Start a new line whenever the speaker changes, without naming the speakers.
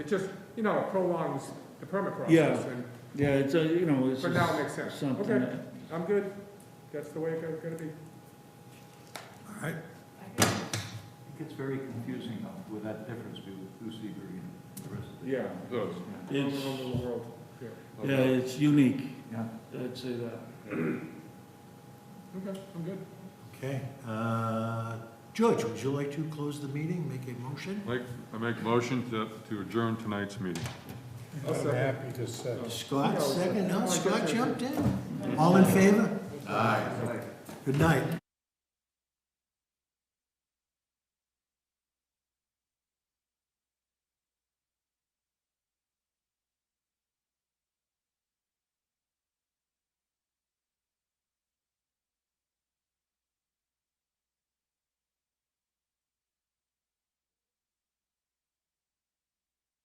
It just, you know, prolongs the permit
Yeah.
process, and,
Yeah, it's, a- you know, it's
but now it
just
makes sense.
something
Okay,
that,
I'm good, that's the way it's gonna be.
All right,
It gets very confusing though, with that difference between Goose Seabury and the rest of the.
Yeah.
Those.
It's-
All over the world. Yeah.
yeah, it's unique,
Yeah.
I'd say that.
Okay, I'm good.
okay. Uh, George, would you like to close the meeting, make a motion?
Like, I make a motion to, to adjourn tonight's meeting.
I'll second.
happy to say.
Scott, second, no, Scott jumped in. All in favor? Aye. Good night.